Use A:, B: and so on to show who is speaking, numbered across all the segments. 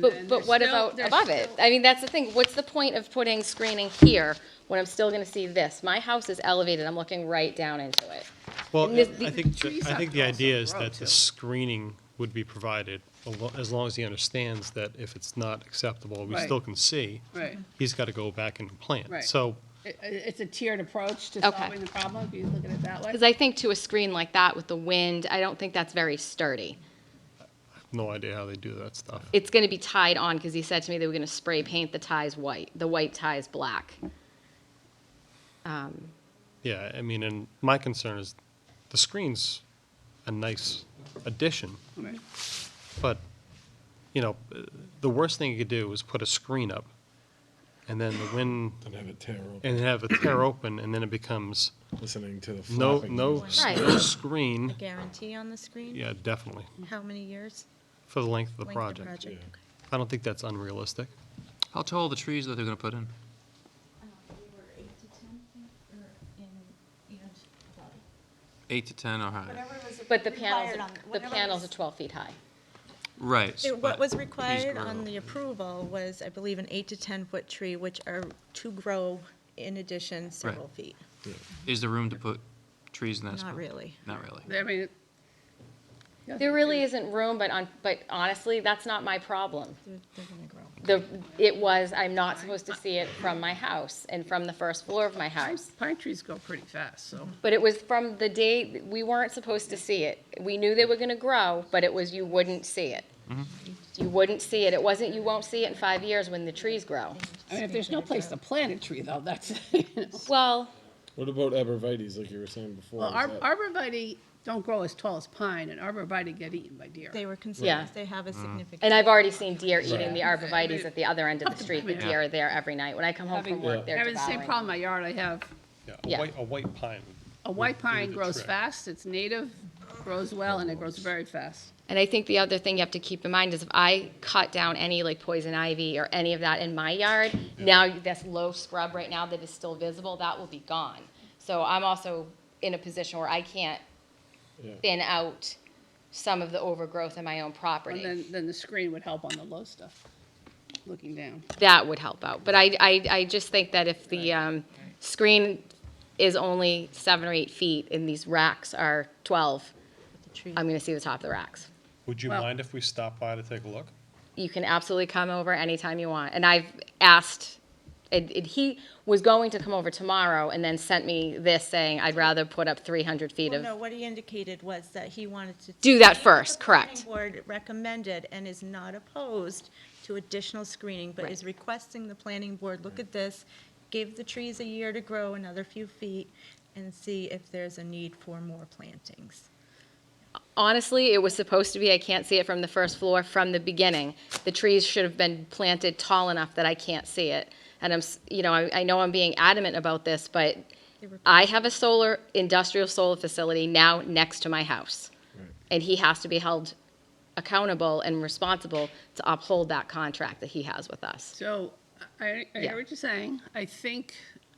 A: But, but what about above it? I mean, that's the thing, what's the point of putting screening here when I'm still gonna see this? My house is elevated, I'm looking right down into it.
B: Well,
A: And this- the-
B: I think,
C: trees
B: the- I
C: have
B: think
C: to
B: the
C: also
B: idea is
C: grow,
B: that the
C: too.
B: screening would be provided, alo- as long as he understands that if it's not acceptable, we
D: Right.
B: still can see.
D: Right.
B: He's got to go back and plant.
D: Right.
B: So,
D: It- It's a tiered approach to
A: Okay.
D: solving the problem, if you look at it that way.
A: Because I think to a screen like that with the wind, I don't think that's very sturdy.
B: no idea how they do that stuff.
A: It's gonna be tied on, because he said to me they were gonna spray paint the ties white, the white ties black.
B: Yeah, I mean, and my concern is the screen's a nice addition,
D: Right.
B: but, you know, uh, the worst thing you could do is put a screen up and then the wind,
E: and have it tear open,
B: and have it tear open and then it becomes
E: listening to the
B: no,
E: flapping.
B: no, s-
A: Right.
B: no screen.
F: guarantee on the screen?
B: Yeah, definitely,
F: How many years?
B: for the length of the
F: Length of
B: project.
F: project,
E: Yeah.
F: okay.
B: I don't think that's unrealistic.
G: How tall are the trees that they're gonna put in?
F: Uh,
G: Eight to ten or higher?
A: But the panels,
F: Required on-
A: the
F: whatever
A: panels are
F: was-
A: twelve feet high.
G: Right.
F: It- What
G: but
F: was
G: trees
F: required
G: grow.
F: on the approval was, I believe, an eight to 10-foot tree, which are to grow in addition several feet.
G: Is there room to put trees in that spot?
F: Not really.
G: Not really.
D: I mean, it-
A: There really isn't room, but on, but honestly, that's not my problem.
F: They're they're gonna grow.
A: The, it was, I'm not supposed to see it from my house and from the first floor of my house.
D: pine trees go pretty fast, so.
A: But it was from the day, we weren't supposed to see it. We knew they were gonna grow, but it was you wouldn't see it. You wouldn't see it. It wasn't you won't see it in five years when the trees grow.
D: I mean, if there's no place to plant a tree, though, that's,
A: Well,
E: What about arborvitaes, like you were saying before?
D: well,
E: Is
D: ar-
E: that-
D: arborvitae don't grow as tall as pine, and arborvitae get eaten by deer.
F: They were
A: Yeah.
F: concerned, 'cause they have a significant.
A: and I've already seen deer eating the
D: Right.
A: arborvitaes at the other end of the street. The
D: Yeah.
A: deer are there every night. When I come home from
D: Having-
A: work, they're
D: Having the same problem in
A: devouring.
D: my yard, I have,
B: Yeah,
A: Yeah.
B: a white, a white pine.
D: a white
B: would do
D: pine
B: the
D: grows
B: trick.
D: fast, it's native, grows well, and it grows very fast.
A: And I think the other thing you have to keep in mind is if I cut down any like poison ivy or any of that in my yard, now this low scrub right now that is still visible, that will be gone. So I'm also in a position where I can't
E: Yeah.
A: thin out some of the overgrowth in my own
D: And
A: property.
D: then, then the screen would help on the low stuff, looking down.
A: That would help out. But I, I, I just think that if the um, screen is only seven or eight feet and these racks are 12, I'm going to see the top of the racks.
B: Would you
D: Well-
B: mind if we stop by to take a look?
A: you can absolutely come over anytime you want. And I've asked, it, it, he was going to come over tomorrow and then sent me this saying, I'd rather put up 300 feet
F: Well,
A: of.
F: no, what he indicated was that he wanted to.
A: Do that
F: see what the
A: first,
F: planning
A: correct.
F: Board recommended and is not opposed to additional screening, but is requesting the planning board, look at this, give the trees a year to grow another few feet, and see if there's a need for more plantings.
A: Honestly, it was supposed to be, I can't see it from the first floor from the beginning. The trees should have been planted tall enough that I can't see it. And I'm, s- you know, I, I know I'm being adamant about this, but
F: They were-
A: I have a solar, industrial solar facility now next to my house. And he has to be held accountable and responsible to uphold that contract that he has with us.
D: So I, I
A: Yeah.
D: hear what you're saying. I think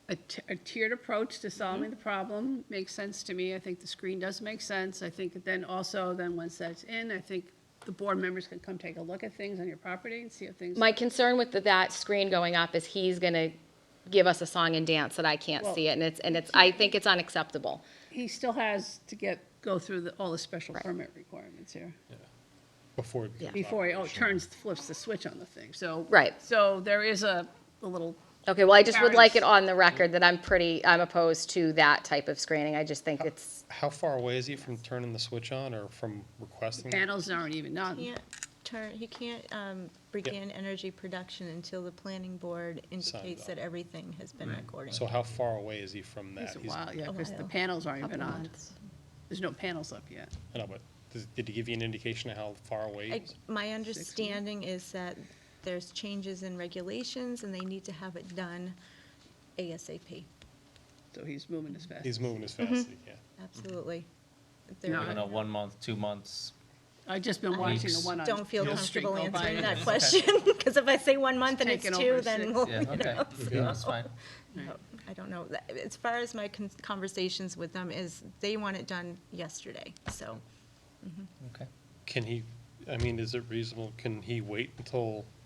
D: a t- a tiered approach to solving the problem makes sense to me. I think the screen does make sense. I think then also, then once that's in, I think the board members can come take a look at things on your property and see if things.
A: My concern with the- that screen going up is he's gonna give us a song and dance that I can't see it, and it's, and it's, I think it's unacceptable.
D: He still has to get, go through the, all the special permit requirements here
B: Before it
A: Yeah.
B: becomes
D: before he, oh, turns, flips the switch on the thing, so.
A: Right.
D: So there is a, a little,
A: Okay, well, I just would like it
D: Parents.
A: on the record that I'm pretty, I'm opposed to that type of screening, I just think it's,
B: How far away is he from turning the switch on or from requesting? it?
D: panels aren't even on.
A: Mm.
F: Can't turn, he can't um, begin energy production until the planning board indicates
B: off.
F: that everything has been recorded.
B: So how far away is he from that?
D: It's a
B: He's-
D: while, yeah, because the
F: while.
D: panels aren't even on. There's no panels up yet.
B: I know, but does- did he give you an indication of how far away? he
F: I-
B: is?
F: My understanding is that there's changes in regulations, and they need to have it done ASAP,
D: So he's moving as fast.
B: He's moving as fast as he can.
F: absolutely. If
D: No,
F: they're-
D: I
H: I know, one month, two months.
D: I've just been watching the
H: Weeks.
D: one on.
F: Don't feel
D: Hill Street
F: comfortable
D: go by
F: answering
D: and
F: that question, because if I say one month and it's
D: taken
F: two,
D: over
F: then
D: six.
F: we'll,
H: Yeah,
F: you
H: okay.
F: know,
H: Yeah, that's fine.
F: so, I don't know. That- As far as my con- conversations with them is, they want it done yesterday, so.
H: Okay.
B: Can he, I mean, is it reasonable, can he wait until